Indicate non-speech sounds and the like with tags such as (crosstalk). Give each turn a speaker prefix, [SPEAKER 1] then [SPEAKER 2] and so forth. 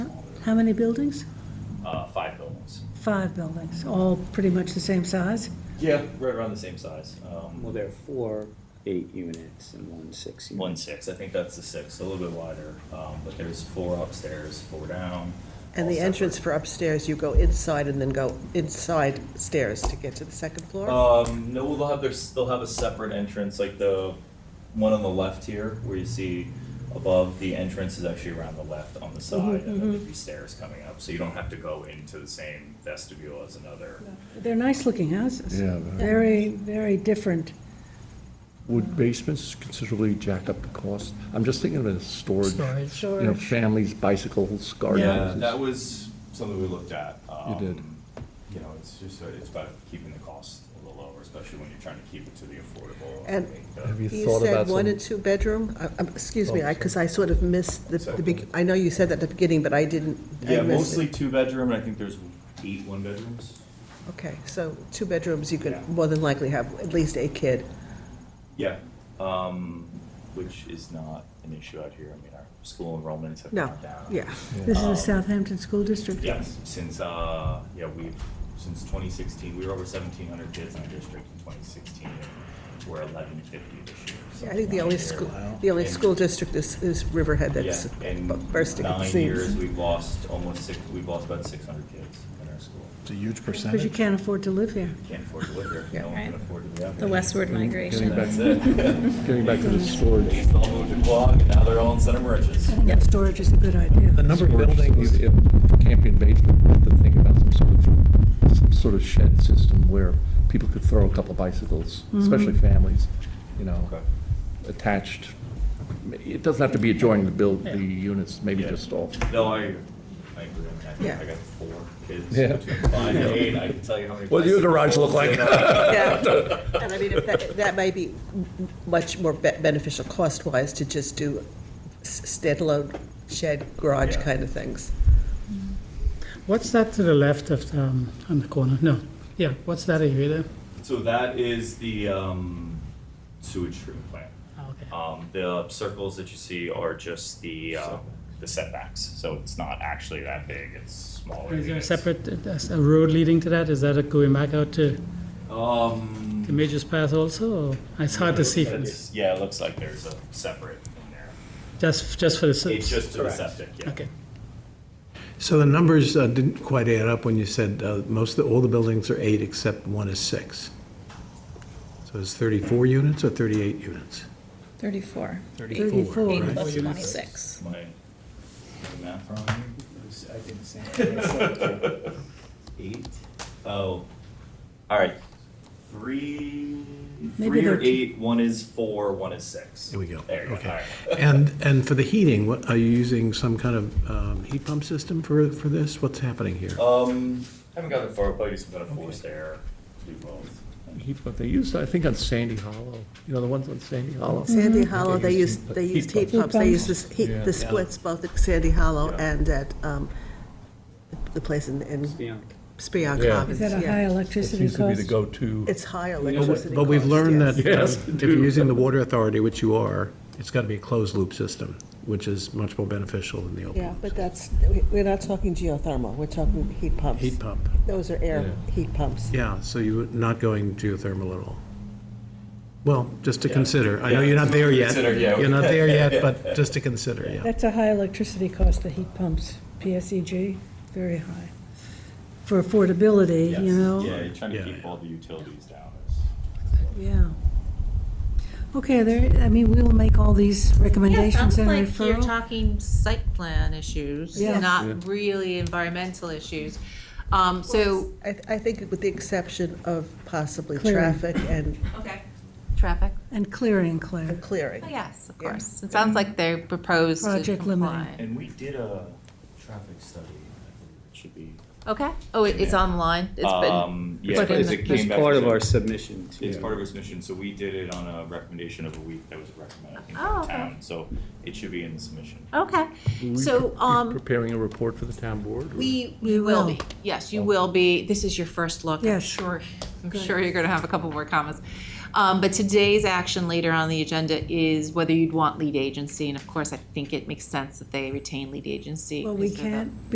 [SPEAKER 1] How many buildings?
[SPEAKER 2] uh, five buildings.
[SPEAKER 1] Five buildings, all pretty much the same size?
[SPEAKER 2] Yeah. Right around the same size, um,
[SPEAKER 3] Well, there are four eight units and one six unit.
[SPEAKER 2] one six, I think that's the six, a little bit wider, um, but there's four upstairs, four down.
[SPEAKER 4] And
[SPEAKER 2] all
[SPEAKER 4] the entrance
[SPEAKER 2] separate.
[SPEAKER 4] for upstairs, you go inside and then go inside stairs to get to the second floor?
[SPEAKER 2] Um, no, they'll have their, they'll have a separate entrance, like the one on the left here, where you see above, the entrance is actually around the left
[SPEAKER 4] Mm-hmm,
[SPEAKER 2] on the side, and then there'd be stairs coming up, so you don't have to go into the same vestibule as another.
[SPEAKER 1] They're nice-looking houses.
[SPEAKER 5] Yeah, they're-
[SPEAKER 1] Very, very different.
[SPEAKER 5] Would basements considerably jack up the cost? I'm just thinking of a storage,
[SPEAKER 6] Storage.
[SPEAKER 5] you know, families, bicycles,
[SPEAKER 2] Yeah,
[SPEAKER 5] gardens.
[SPEAKER 2] that was something we looked at. um,
[SPEAKER 5] did.
[SPEAKER 2] You know, it's just, uh, it's about keeping the cost a little lower, especially when you're trying to keep it to the affordable.
[SPEAKER 4] And-
[SPEAKER 2] make the-
[SPEAKER 5] Have you
[SPEAKER 4] You
[SPEAKER 5] thought about
[SPEAKER 4] said one and
[SPEAKER 5] some?
[SPEAKER 4] two bedroom? Uh, um, Excuse me,
[SPEAKER 5] Oh,
[SPEAKER 4] I, because I sort of missed the, the beg-
[SPEAKER 2] Second.
[SPEAKER 4] I know you said that at the beginning, but I didn't. I
[SPEAKER 2] Yeah,
[SPEAKER 4] missed it.
[SPEAKER 2] mostly two bedroom, and I think there's eight one bedrooms.
[SPEAKER 4] Okay, so two bedrooms, you
[SPEAKER 2] Yeah.
[SPEAKER 4] could more than likely have at least a kid.
[SPEAKER 2] Yeah, um, which is not an issue out here. I mean, our school enrollments have
[SPEAKER 4] No,
[SPEAKER 2] gone down.
[SPEAKER 4] yeah.
[SPEAKER 1] This is the Southampton School District?
[SPEAKER 2] Yes, since, uh, yeah, we've, since twenty sixteen, we were over seventeen hundred kids in our district in twenty sixteen. We're eleven fifty this year.
[SPEAKER 4] Yeah, I
[SPEAKER 2] something
[SPEAKER 4] think the
[SPEAKER 2] like
[SPEAKER 4] only
[SPEAKER 2] there.
[SPEAKER 4] school, the only
[SPEAKER 2] And-
[SPEAKER 4] school district is, is Riverhead that's
[SPEAKER 2] Yeah, in
[SPEAKER 4] bu- bursting at the
[SPEAKER 2] nine years,
[SPEAKER 4] seams.
[SPEAKER 2] we've lost almost six, we've lost about six hundred kids in our school.
[SPEAKER 7] It's a huge
[SPEAKER 1] Because you
[SPEAKER 7] percentage.
[SPEAKER 1] can't afford to live here.
[SPEAKER 2] Can't afford to live here.
[SPEAKER 4] Yeah.
[SPEAKER 2] No one can afford to live out
[SPEAKER 6] The
[SPEAKER 2] here.
[SPEAKER 6] westward
[SPEAKER 5] Getting
[SPEAKER 6] migration.
[SPEAKER 5] back,
[SPEAKER 2] That's
[SPEAKER 6] (laughs)
[SPEAKER 2] it.
[SPEAKER 5] getting back to the storage.
[SPEAKER 2] They all moved to Quogue, and now they're all in Center Merchants.
[SPEAKER 1] I think that storage is a good
[SPEAKER 7] The
[SPEAKER 1] idea.
[SPEAKER 7] number of
[SPEAKER 5] storage,
[SPEAKER 7] buildings,
[SPEAKER 5] if- if Can't be invaded, we have to think about some sort of, some sort of shed system where people could throw a couple bicycles, especially families, you know,
[SPEAKER 2] Okay.
[SPEAKER 5] attached. It doesn't have to be adjoining the build, the units, maybe
[SPEAKER 2] Yeah.
[SPEAKER 5] just off.
[SPEAKER 2] No, I, I agree. I mean, I think
[SPEAKER 4] Yeah.
[SPEAKER 2] I got four kids
[SPEAKER 5] Yeah.
[SPEAKER 2] between five and eight. I can tell you how many.
[SPEAKER 5] What does
[SPEAKER 2] bicycles
[SPEAKER 5] your garage look like?
[SPEAKER 2] and, uh,
[SPEAKER 4] Yeah, (laughs) And I mean, if that, that may be much more be- beneficial cost-wise to just do s- standalone shed, garage
[SPEAKER 2] Yeah.
[SPEAKER 4] kind of things.
[SPEAKER 6] What's that to the left of the, um, on the corner? No, yeah, what's that area there?
[SPEAKER 2] So that is the, um, sewage treatment plant.
[SPEAKER 6] Oh, okay.
[SPEAKER 2] Um, the circles that you see are just the, uh, the setbacks, so it's not actually that big, it's smaller.
[SPEAKER 6] Is there a
[SPEAKER 2] units.
[SPEAKER 6] separate, uh, a road leading to that? Is that a going back out to,
[SPEAKER 2] Um.
[SPEAKER 6] to Major's Path also? or- It's hard to see from this,
[SPEAKER 2] It's- Yeah, it looks like there's a separate in there.
[SPEAKER 6] just, just for the.
[SPEAKER 2] It's just to the septic, yeah.
[SPEAKER 6] Okay.
[SPEAKER 7] so the numbers uh, didn't quite add up when you said uh, most, of the- all the buildings are eight except one is six. So it's 34 units or 38 units?
[SPEAKER 8] 34.
[SPEAKER 1] 34.
[SPEAKER 8] Eight
[SPEAKER 1] Right.
[SPEAKER 8] plus 26.
[SPEAKER 2] Am I am I math wrong?
[SPEAKER 3] I did the same
[SPEAKER 2] (laughs) Eight? Oh, all right. Three,
[SPEAKER 1] Maybe
[SPEAKER 2] three or
[SPEAKER 1] they're two-
[SPEAKER 2] eight, one is four, one is six.
[SPEAKER 7] There we go.
[SPEAKER 2] There you go, all
[SPEAKER 7] Okay.
[SPEAKER 2] right.
[SPEAKER 7] And, and for the heating, what, are you using some kind of um, heat pump system for, for this? What's happening here?
[SPEAKER 2] Um, haven't gotten far, probably some kind of forced air, do both.
[SPEAKER 5] Heat pump, they used, I think on Sandy Hollow, you know, the ones on Sandy Hollow.
[SPEAKER 4] Sandy Hollow, they
[SPEAKER 5] use
[SPEAKER 4] used, they
[SPEAKER 5] heat
[SPEAKER 4] used Mm-hmm. heat
[SPEAKER 5] pumps.
[SPEAKER 4] pumps, they
[SPEAKER 1] Heat
[SPEAKER 4] used this, heat-
[SPEAKER 5] Yeah.
[SPEAKER 4] the splits both at Sandy Hollow and at, um, the place in, in Spion
[SPEAKER 5] Yeah.
[SPEAKER 1] Is
[SPEAKER 4] Commons,
[SPEAKER 1] that a high
[SPEAKER 4] yeah.
[SPEAKER 1] electricity cost?
[SPEAKER 5] go-to.
[SPEAKER 4] It's high
[SPEAKER 7] But
[SPEAKER 4] electricity
[SPEAKER 7] we- but we've
[SPEAKER 4] cost,
[SPEAKER 7] learned
[SPEAKER 4] yes.
[SPEAKER 7] that uh,
[SPEAKER 5] Yes,
[SPEAKER 7] if you're using the water authority, which you are, it's got to be a closed-loop system, which is much more beneficial than the
[SPEAKER 4] Yeah,
[SPEAKER 7] open.
[SPEAKER 4] but that's, we- we're not talking geothermal, we're talking heat pumps.
[SPEAKER 7] Heat pump,
[SPEAKER 4] Those are air heat pumps.
[SPEAKER 7] yeah, so you're not going geothermal at all. Well, just to
[SPEAKER 2] Yeah.
[SPEAKER 7] consider, I know
[SPEAKER 2] Yeah.
[SPEAKER 7] you're not there yet.
[SPEAKER 2] Consider, yeah.
[SPEAKER 7] You're
[SPEAKER 2] (laughs)
[SPEAKER 7] not there yet, but just to consider, yeah.
[SPEAKER 1] That's a high electricity cost, the heat pumps, PSEG, very high. For affordability, you
[SPEAKER 2] Yes.
[SPEAKER 1] know?
[SPEAKER 2] Yeah, you're trying to
[SPEAKER 7] Yeah,
[SPEAKER 2] keep
[SPEAKER 7] yeah.
[SPEAKER 2] all the utilities down.
[SPEAKER 1] Yeah. Okay, there, I mean, we will make all these
[SPEAKER 9] Yeah,
[SPEAKER 1] recommendations
[SPEAKER 9] sounds
[SPEAKER 1] and
[SPEAKER 9] like you're
[SPEAKER 1] referral.
[SPEAKER 9] talking site plan issues,
[SPEAKER 1] Yeah.
[SPEAKER 9] not really environmental issues. Um, so.
[SPEAKER 4] I, I think with the exception of possibly
[SPEAKER 1] Clearing.
[SPEAKER 4] traffic and
[SPEAKER 9] Okay. Traffic?
[SPEAKER 1] And clearing, Claire.
[SPEAKER 4] and clearing.
[SPEAKER 9] Oh, yes, of
[SPEAKER 4] Yeah.
[SPEAKER 9] course. It sounds like they're proposed to
[SPEAKER 1] Project limiting.
[SPEAKER 9] comply.
[SPEAKER 2] And we did a traffic study, I believe it should be.
[SPEAKER 9] Okay, oh, it- it's
[SPEAKER 2] Yeah.
[SPEAKER 9] online? It's been,
[SPEAKER 2] Um,
[SPEAKER 9] it's
[SPEAKER 2] yeah,
[SPEAKER 9] put in
[SPEAKER 2] because
[SPEAKER 9] the-
[SPEAKER 2] it
[SPEAKER 3] It's
[SPEAKER 2] came back.
[SPEAKER 3] part
[SPEAKER 2] as
[SPEAKER 3] of
[SPEAKER 2] a-
[SPEAKER 3] our submission to
[SPEAKER 2] It's part of his mission, so we did it on a recommendation of a week that was recommended, I think, by
[SPEAKER 9] Oh,
[SPEAKER 2] the
[SPEAKER 9] okay.
[SPEAKER 2] town, so it should be in the submission.
[SPEAKER 9] okay, so, um,
[SPEAKER 5] Preparing a report for the town board? or-
[SPEAKER 9] We,
[SPEAKER 1] We
[SPEAKER 9] we will
[SPEAKER 1] will.
[SPEAKER 9] be, yes, you will be, this is your first look, I'm
[SPEAKER 1] Yes.
[SPEAKER 9] sure, I'm
[SPEAKER 1] Good.
[SPEAKER 9] sure you're gonna have a couple more comments. Um, but today's action later on the agenda is whether you'd want lead agency, and of course, I think it makes sense that they retain lead agency.
[SPEAKER 1] Well, we
[SPEAKER 9] because of-
[SPEAKER 1] can't